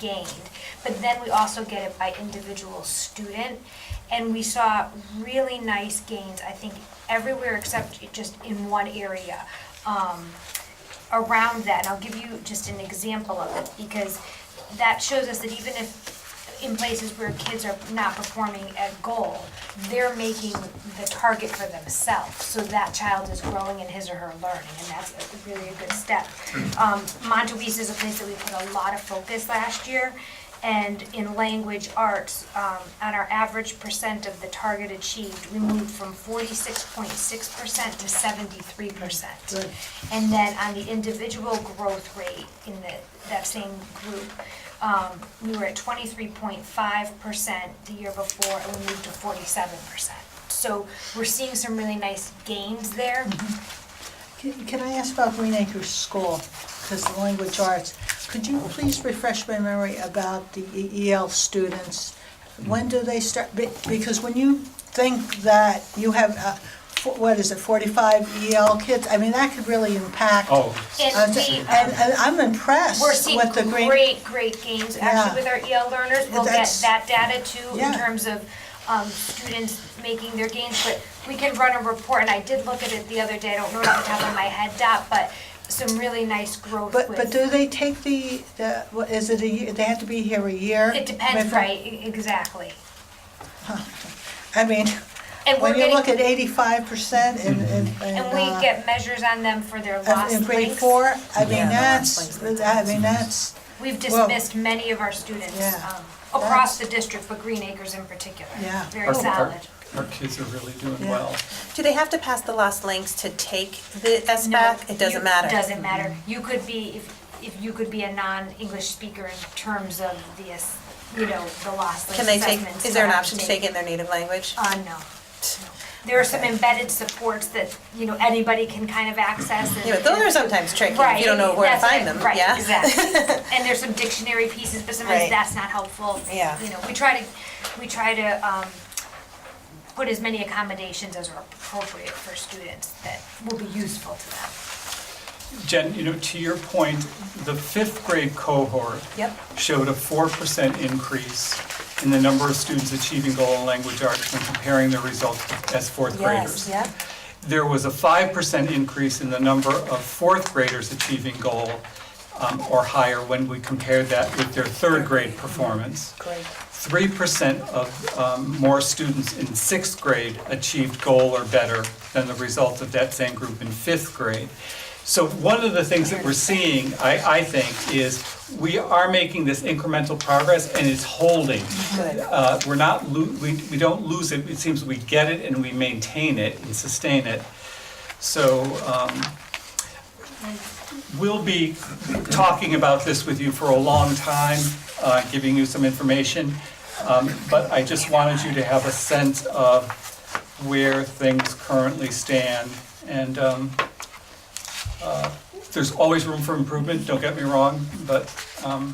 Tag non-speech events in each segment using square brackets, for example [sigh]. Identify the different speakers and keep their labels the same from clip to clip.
Speaker 1: gained. But then we also get it by individual student. And we saw really nice gains, I think, everywhere except just in one area. Um, around that, and I'll give you just an example of it, because that shows us that even if, in places where kids are not performing at goal, they're making the target for themselves, so that child is growing in his or her learning, and that's a- really a good step. Um, Montavista is a place that we put a lot of focus last year, and in language arts, um, on our average percent of the target achieved, we moved from forty-six point six percent to seventy-three percent. And then on the individual growth rate in the, that same group, um, we were at twenty-three point five percent the year before, and we moved to forty-seven percent. So we're seeing some really nice gains there.
Speaker 2: Mm-hmm. Can can I ask about Green Acres School, because the language arts, could you please refresh my memory about the E- EL students? When do they start, be- because when you think that you have, uh, fo- what is it, 45 EL kids, I mean, that could really impact.
Speaker 3: Oh,
Speaker 2: Uh,
Speaker 1: And we,
Speaker 2: th- And, and I'm impressed
Speaker 1: We're seeing
Speaker 2: with the Green.
Speaker 1: great, great gains,
Speaker 2: Yeah.
Speaker 1: actually, with our EL learners, we'll get
Speaker 2: That's-
Speaker 1: that data too, in
Speaker 2: Yeah.
Speaker 1: terms of, um, students making their gains, but we can run a report, and I did look at it the other day, I don't know it off the top of my head, Dot, but some really nice growth
Speaker 2: But,
Speaker 1: with-
Speaker 2: but do they take the, the, what, is it a year, they have to be here a year?
Speaker 1: It depends,
Speaker 2: before-
Speaker 1: right, e- exactly.
Speaker 2: I mean,
Speaker 1: And we're
Speaker 2: when you look
Speaker 1: getting,
Speaker 2: at 85% and, and.
Speaker 1: and we
Speaker 2: uh,
Speaker 1: get measures on them for their
Speaker 2: Uh,
Speaker 1: lost
Speaker 2: In grade
Speaker 1: links.
Speaker 2: four, I
Speaker 4: Yeah,
Speaker 2: mean,
Speaker 4: the
Speaker 2: that's,
Speaker 4: last links.
Speaker 2: I mean, that's,
Speaker 1: We've
Speaker 2: Well-
Speaker 1: dismissed many of our students,
Speaker 2: Yeah.
Speaker 1: um, across the district, but Green Acres in particular.
Speaker 2: Yeah.
Speaker 1: Very
Speaker 3: our, our,
Speaker 1: solid.
Speaker 3: our kids are really doing
Speaker 2: Yeah.
Speaker 3: well.
Speaker 4: Do they have to pass the lost links to take the
Speaker 1: No,
Speaker 4: SBAC? It
Speaker 1: you-
Speaker 4: doesn't matter.
Speaker 1: Doesn't matter.
Speaker 2: Mm-hmm.
Speaker 1: You could be, if, if you could be a non-English speaker in terms of the, ass- you know, the loss
Speaker 4: Can they take, is there an option to take it in their native language?
Speaker 1: Uh, no. No. There are some embedded supports that, you know, anybody can kind of access. and-
Speaker 4: Yeah, but those are sometimes tricky, if
Speaker 1: Right.
Speaker 4: you don't know where to
Speaker 1: that's
Speaker 4: find
Speaker 1: it,
Speaker 4: them, yeah?
Speaker 1: Right, exactly.
Speaker 4: [laughs]
Speaker 1: And there's some dictionary pieces, but sometimes
Speaker 4: Right.
Speaker 1: that's not helpful.
Speaker 4: Yeah.
Speaker 1: You know, we try to, we try to, um, put as many accommodations as are appropriate for students that will be useful to them.
Speaker 3: Jen, you know, to your point, the fifth grade cohort
Speaker 4: Yep.
Speaker 3: showed a four percent increase in the number of students achieving goal in language arts when comparing their results as fourth graders.
Speaker 4: Yes, yeah.
Speaker 3: There was a five percent increase in the number of fourth graders achieving goal um, or higher when we compared that with their third grade performance.
Speaker 4: Great.
Speaker 3: Three percent of um, more students in sixth grade achieved goal or better than the result of that same group in fifth grade. So one of the things that we're seeing, I, I think, is we are making this incremental progress and it's holding.
Speaker 4: Good.
Speaker 3: Uh, We're not, lo- we, we don't lose it, it seems we get it and we maintain it and sustain it. So um, we'll be talking about this with you for a long time, uh, giving you some information. Um, But I just wanted you to have a sense of where things currently stand. And um, uh, there's always room for improvement, don't get me wrong, but um,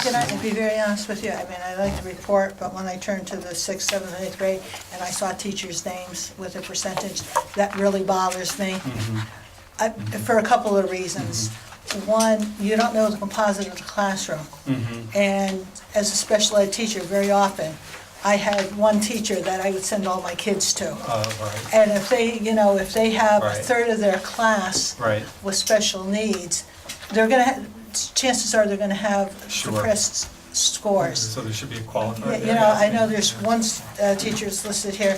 Speaker 2: can I be very honest with you, I mean, I like the report, but when I turned to the sixth, seventh, and eighth grade, and I saw teachers' names with a percentage, that really bothers me.
Speaker 3: Hmm.
Speaker 2: I- For a couple of reasons. One, you don't know the composite of the classroom.
Speaker 3: Hmm.
Speaker 2: Mm-hmm. And as a special ed teacher, very often, I had one teacher that I would send all my kids to.
Speaker 3: uh, right,
Speaker 2: And if they, you know, if they have a
Speaker 3: Right.
Speaker 2: third of their class
Speaker 3: right.
Speaker 2: with special needs, they're gonna, ha- chances are they're gonna have
Speaker 3: Sure. Mm-hmm.
Speaker 2: depressed scores.
Speaker 3: So there should be a
Speaker 2: Yeah,
Speaker 3: qualifier.
Speaker 2: You know, I know there's one s- uh, teacher's listed here,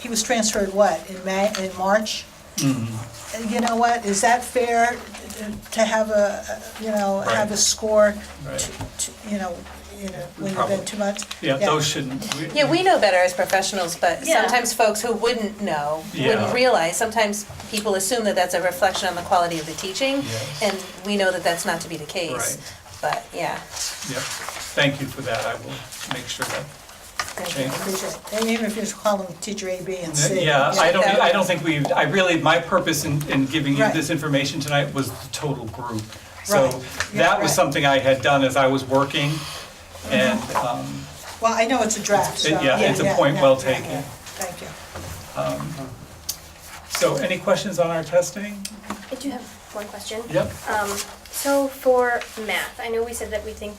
Speaker 2: he was transferred, what, in May, in March?
Speaker 3: Mm-hmm.
Speaker 2: And you know what, is that fair uh, to have a, you know, have a
Speaker 3: Right.
Speaker 2: score,
Speaker 3: Right.
Speaker 2: to- to- you know, you know, when you've
Speaker 3: Probably.
Speaker 2: been two months?
Speaker 3: Yeah, those shouldn't.
Speaker 4: Yeah, we know better as professionals, but
Speaker 1: Yeah.
Speaker 4: sometimes folks who wouldn't know,
Speaker 3: Yeah.
Speaker 4: wouldn't realize, sometimes people assume that that's a reflection on the quality of the teaching,
Speaker 3: Yes.
Speaker 4: and we know that that's not to be the case.
Speaker 3: Right.
Speaker 4: But, yeah.
Speaker 3: Yep, thank you for that, I will make sure that
Speaker 2: And even if you just call them teacher A, B, and C.
Speaker 3: Uh, Yeah, I don't,
Speaker 4: that-
Speaker 3: I don't think we, I really, my purpose in, in giving you
Speaker 2: Right.
Speaker 3: this information tonight was the total group. So
Speaker 2: Right. Yeah,
Speaker 3: that was
Speaker 2: right.
Speaker 3: something I had done as I was working, and,
Speaker 2: Mm-hmm.
Speaker 3: um,
Speaker 2: Well, I know it's a draft, so.
Speaker 3: It- yeah, it's a point
Speaker 2: yeah,
Speaker 3: well
Speaker 2: yeah, yeah.
Speaker 3: taken.
Speaker 2: Thank you.
Speaker 3: so any questions on our testing?
Speaker 5: I do have one question.
Speaker 3: Yep.
Speaker 5: Um, so for math, I know we said that we think